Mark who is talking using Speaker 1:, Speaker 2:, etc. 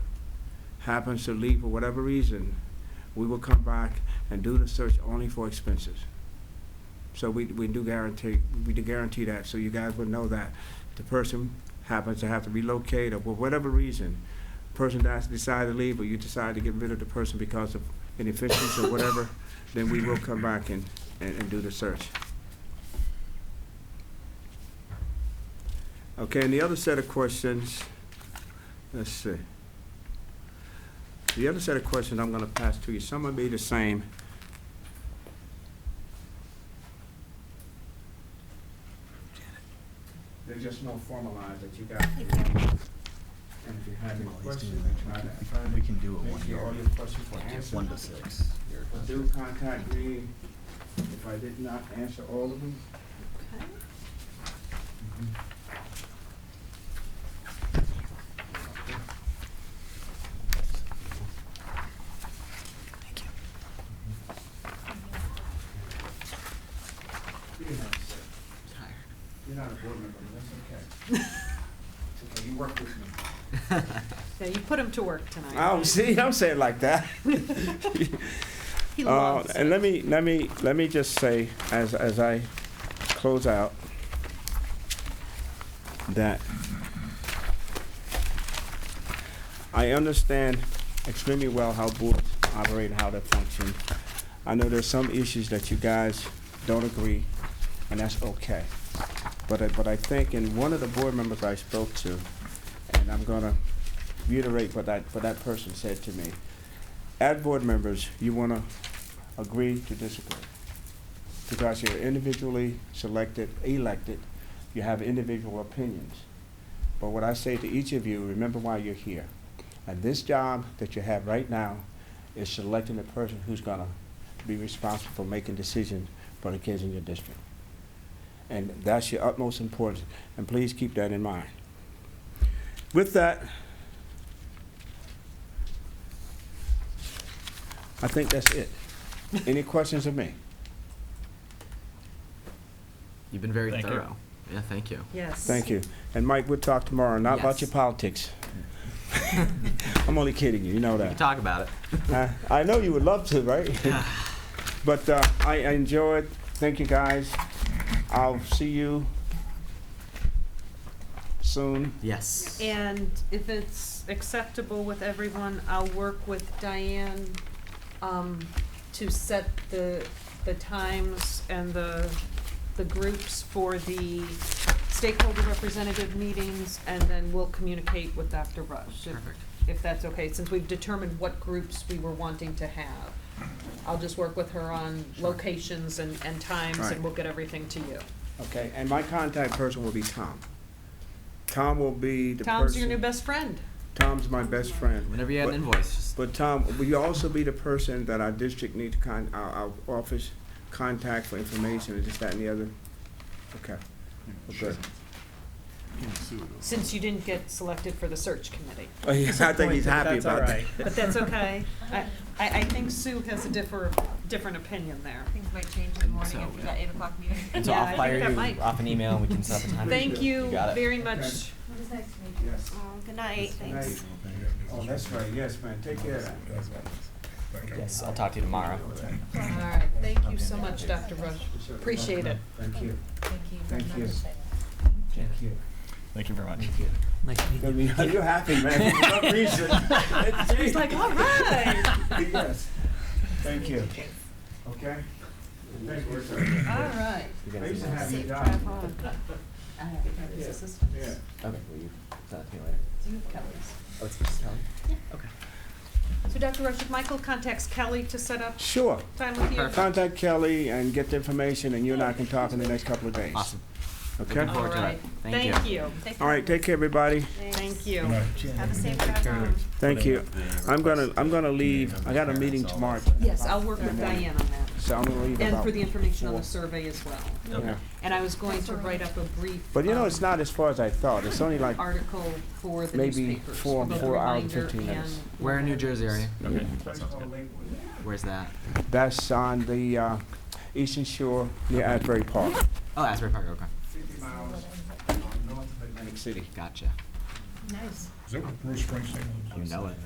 Speaker 1: happens to leave for whatever reason, we will come back and do the search only for expenses. So we, we do guarantee, we do guarantee that, so you guys would know that. The person happens to have to relocate or for whatever reason, person dies, decide to leave, or you decide to get rid of the person because of inefficiency or whatever, then we will come back and, and, and do the search. Okay, and the other set of questions, let's see. The other set of questions I'm gonna pass to you, some will be the same. They're just more formalized that you got. And if you have any questions, I try to, try to
Speaker 2: We can do it
Speaker 1: make
Speaker 2: one
Speaker 1: sure all
Speaker 2: year,
Speaker 1: your questions were answered.
Speaker 2: one to six.
Speaker 1: Do contact me if I did not answer all of them. Thank you. You're not a board member, but that's okay. It's okay, you work with me.
Speaker 3: Yeah, you put him to work tonight.
Speaker 1: Oh, see, I'm saying like that.
Speaker 3: He
Speaker 1: Uh,
Speaker 3: loves it.
Speaker 1: and let me, let me, let me just say, as, as I close out, that I understand extremely well how boards operate, how they function. I know there's some issues that you guys don't agree, and that's okay. But I, but I think, and one of the board members I spoke to, and I'm gonna reiterate what that, what that person said to me, as board members, you want to agree to disagree. Because you're individually selected, elected, you have individual opinions. But what I say to each of you, remember why you're here. And this job that you have right now is selecting the person who's going to be responsible for making decisions for the kids in your district. And that's your utmost importance, and please keep that in mind. With that, I think that's it. Any questions of me?
Speaker 4: You've been very
Speaker 2: Thank you.
Speaker 4: thorough. Yeah, thank you.
Speaker 3: Yes.
Speaker 1: Thank you. And Mike, we'll talk tomorrow, not about your
Speaker 4: Yes.
Speaker 1: politics. I'm only kidding you, you know
Speaker 4: We can
Speaker 1: that.
Speaker 4: talk about it.
Speaker 1: Uh, I know you would love to, right? But uh, I I enjoyed, thank you guys. I'll see you soon.
Speaker 4: Yes.
Speaker 3: And if it's acceptable with everyone, I'll work with Diane, um, to set the, the times and the, the groups for the stakeholder representative meetings, and then we'll communicate with Dr. Rush, if,
Speaker 4: Perfect.
Speaker 3: if that's okay, since we've determined what groups we were wanting to have. I'll just work with her on locations and, and times,
Speaker 1: Right.
Speaker 3: and we'll get everything to you.
Speaker 1: Okay, and my contact person will be Tom. Tom will be the person.
Speaker 3: Tom's your new best friend.
Speaker 1: Tom's my best friend.
Speaker 4: Whenever you had an
Speaker 1: But-
Speaker 4: invoice, just
Speaker 1: But Tom, will you also be the person that our district needs to con, our, our office contact for information and this, that, and the other? Okay, okay.
Speaker 3: Since you didn't get selected for the search committee.
Speaker 1: Oh, yes, I think he's happy
Speaker 2: That's all
Speaker 1: about that.
Speaker 2: right.
Speaker 3: But that's okay. I, I, I think Sue has a differ, different opinion there.
Speaker 5: Things might change in the morning
Speaker 4: So,
Speaker 5: after
Speaker 4: yeah.
Speaker 5: that eight o'clock meeting.
Speaker 4: and so
Speaker 3: Yeah, I
Speaker 4: I'll
Speaker 3: think
Speaker 4: fire
Speaker 3: that
Speaker 4: you
Speaker 3: might-
Speaker 4: off an email and we can set up a time.
Speaker 3: Thank you
Speaker 4: got it.
Speaker 3: very much. Oh,
Speaker 5: It was nice to meet you.
Speaker 1: Yes.
Speaker 5: Good night, thanks.
Speaker 1: Oh, that's right, yes, man, take care of that.
Speaker 4: Yes, I'll talk to you tomorrow.
Speaker 3: All right, thank you so much, Dr. Rush. Appreciate it.
Speaker 1: Thank you,
Speaker 5: Thank you very
Speaker 1: Thank you.
Speaker 5: much.
Speaker 1: thank you.
Speaker 2: Thank you very much.
Speaker 1: I mean, You're happy, man, for some reason.
Speaker 3: He's like, all right,
Speaker 1: Yes, thank you. Okay? Thank you, sir.
Speaker 3: all right.
Speaker 4: You
Speaker 1: I
Speaker 4: guys
Speaker 1: used to
Speaker 4: email.
Speaker 1: have you
Speaker 5: Safe
Speaker 1: down.
Speaker 5: drive home.
Speaker 3: I have Kelly's assistance.
Speaker 1: Yeah.
Speaker 4: Okay, will you send it to me later?
Speaker 3: Do you have Kelly's?
Speaker 4: Oh, it's just Kelly?
Speaker 3: So Dr. Rush, if Michael contacts Kelly to set up
Speaker 1: Sure,
Speaker 3: time with you.
Speaker 4: Perfect.
Speaker 1: contact Kelly and get the information, and you and I can talk in the next couple of days.
Speaker 4: Awesome.
Speaker 1: Okay?
Speaker 4: Looking
Speaker 3: All
Speaker 4: forward to
Speaker 3: right,
Speaker 4: it. Thank
Speaker 3: thank you.
Speaker 5: Safe
Speaker 1: All right,
Speaker 5: drive
Speaker 1: take care, everybody.
Speaker 5: home.
Speaker 3: Thank you.
Speaker 5: Have a safe drive home.
Speaker 1: Thank you. I'm gonna, I'm gonna leave. I got a meeting tomorrow.
Speaker 3: Yes, I'll work with Diane on that.
Speaker 1: So I'm gonna leave
Speaker 3: And for the
Speaker 1: about.
Speaker 3: information on the survey as well.
Speaker 1: yeah.
Speaker 3: And I was going to write up a brief.
Speaker 1: But you know, it's
Speaker 3: um,
Speaker 1: not as far as I thought. It's only like,
Speaker 3: article for the
Speaker 1: Maybe
Speaker 3: newspapers,
Speaker 1: four-
Speaker 3: both
Speaker 1: four hours,
Speaker 3: reminder
Speaker 1: 15 minutes.
Speaker 3: and-
Speaker 4: Where in New Jersey are you?
Speaker 2: Okay, that sounds good.
Speaker 4: Where's that?
Speaker 1: that's on the, uh, Eastern Shore near Asbury Park.
Speaker 4: Oh, Asbury Park, okay.
Speaker 1: Fifty miles north of Atlantic City.
Speaker 4: Gotcha.
Speaker 5: Nice.
Speaker 6: Is that what Bruce Springsteen was?
Speaker 4: You know it.